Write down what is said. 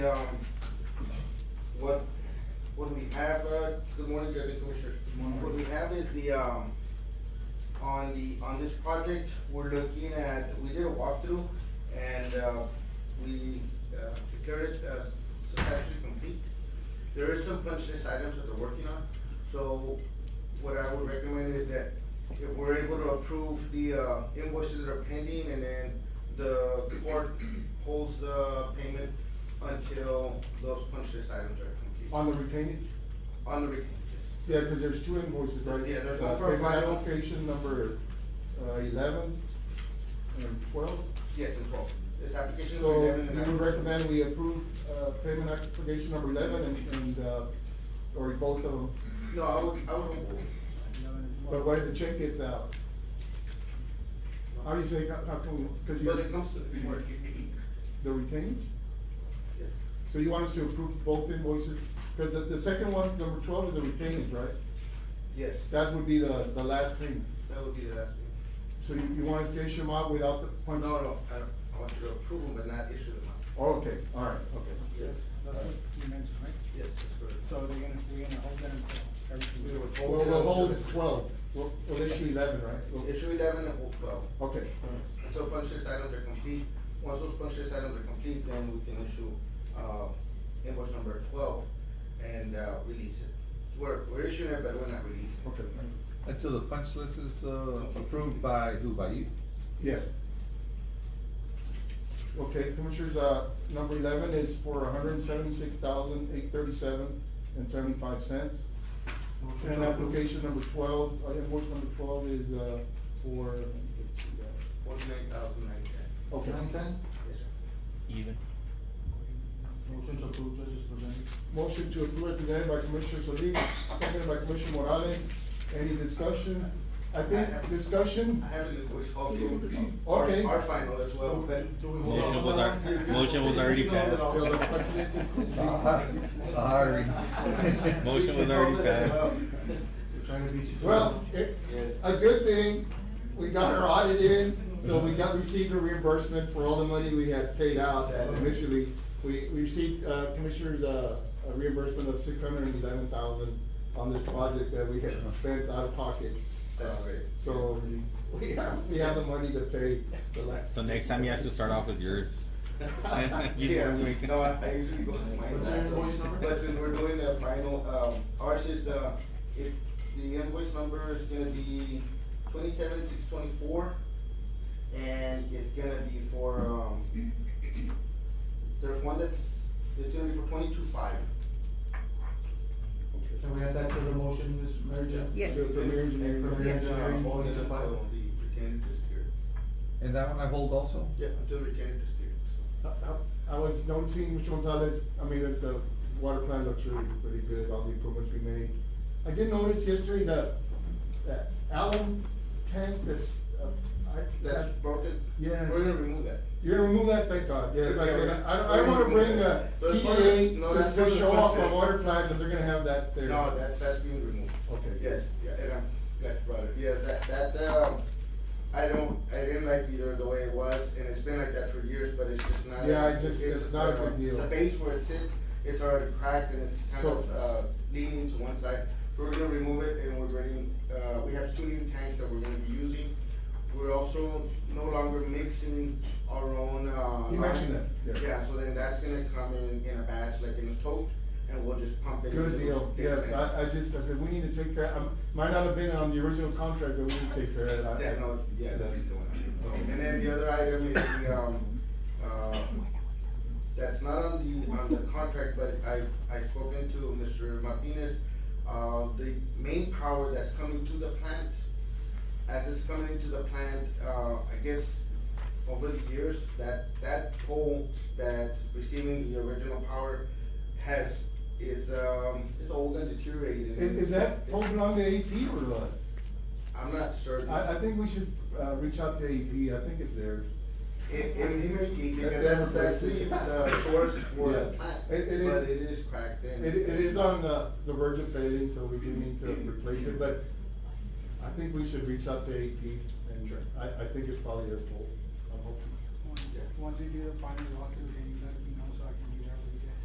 Um, what, what we have, uh, good morning, Deputy Commissioner. What we have is the, um, on the, on this project, we're looking at, we did a walkthrough and, uh, we, uh, declared it as substantially complete. There is some punch list items that they're working on, so what I would recommend is that if we're able to approve the, uh, invoices that are pending and then the court holds the payment until those punch list items are complete. On the retainage? On the retention. Yeah, because there's two invoices, right? Yeah, there's Uh, one for a payment final- Application number uh, eleven and twelve. Yes, and twelve. It's application number So eleven and. we would application- recommend we approve uh, payment application number eleven and, and, uh, or both of them. No, I would, I would, But why the check gets out? How do you say, how how come, because but it you, comes to the court. the retainage? Yes. So you want us to approve both invoices? Because the, the second one, number twelve, is the retainage, right? Yes, That would be the, the last payment. that would be the last thing. So you, you want us to issue them out without the No, punch? no, I don't, I want you to approve them, but not issue them out. Oh, Okay, all right, okay. Yes, That's what you mentioned, right? yes, that's correct. So they're gonna, we're gonna hold that until We everything. would Well, hold. we'll hold till- twelve, we'll, we'll issue eleven, right? We'll- Issue eleven and hold twelve. Okay, all right. Until punch list items are complete, once those punch list items are complete, then we can issue, uh, invoice number twelve and, uh, release it. We're, we're issuing it, but we're not releasing. it. okay, Until the punch list is uh, approved by, who, by you? yes. Okay, Commissioners, uh, number eleven is for hundred and seventy-six thousand, eight thirty-seven and seventy-five cents. And application number twelve, uh, invoice number twelve is, uh, for, let's see that. Forty-nine thousand nine ten. okay. Yes, sir. Even. Motion to approve, judges presented. Motion to approve it presented by Commissioner Solis, seconded by Commissioner Morales. Any discussion? I think discussion, I have an invoice also. Okay. Our final as well, but. Motion was al- motion was already passed. Sorry. Motion was already passed. well, it, Yes. a good thing, we got our audit in, so we got, received a reimbursement for all the money we had paid out initially. We, we received, uh, Commissioner's, uh, a reimbursement of six hundred and eleven thousand on this project that we had spent out of pocket. That's great. So, we have, we have the money to pay the last. So next time you have to start off with yours. You Yeah, know, we- no, I I usually go with mine. What's your last, so- invoice number? But since we're doing the final, um, ours is, uh, it, the invoice number is gonna be twenty-seven, six twenty-four. And it's gonna be for, um, there's one that's, it's gonna be for twenty-two five. Can we add that to the motion, Mr. Mayor? Yes. The premier engineer. And, uh, all the Yes. file, the retained is cleared. And that one I hold also? Yeah, until retained is cleared, so. I- I I was noticing, Mr. Gonzalez, I mean, that the water plant looks really, really good, all the improvements we made. I did notice yesterday that, that alum tank that's, uh, I, that, That's broken? Yes. We're gonna remove that. you're gonna remove that, thank God, yes, I said, I, I don't wanna bring a So it's part of- no, TDA that's to, part to of the show off process. a water plant, that they're gonna have that there. No, that, that's being removed. Okay. Yes, yeah, and I'm glad you brought it. Yes, that, that, um, I don't, I didn't like either the way it was, and it's been like that for years, but it's just not. Yeah, I just- it's not a uh, good deal. The base where it sits, it's already cracked and it's kind So- of, uh, leaning to one side. So We're gonna remove it and we're ready, uh, we have two new tanks that we're gonna be using. We're also no longer mixing our own, uh. You mentioned lime. that, yeah. Yeah, so then that's gonna come in, in a batch, like in a tote, and we'll just pump it. Good into deal, those big yes, tanks. I, I just, I said, we need to take care, I might not have been on the original contract, but we need to take care of it. I- Yeah, no, yeah, that's the one. And then the other item is the, um, uh, that's not on the, on the contract, but I, I spoken to Mr. Martinez. Uh, the main power that's coming to the plant, as it's coming into the plant, uh, I guess over the years, that, that pole that's receiving the original power has, is, um, is old and deteriorated. Is, is that pole belong to AP or us? I'm not certain. I, I think we should, uh, reach out to AP, I think it's theirs. It, it, it may be, because that's, That's that's the, definitely- the source for the Yeah. plant, but It- it is- it is cracked It, in. it is on the, the verge of fading, so we do need to replace it, but I think we should reach out to AP. And Sure. I, I think it's probably their fault, I'm hoping. Once, once you do the final walkthrough, then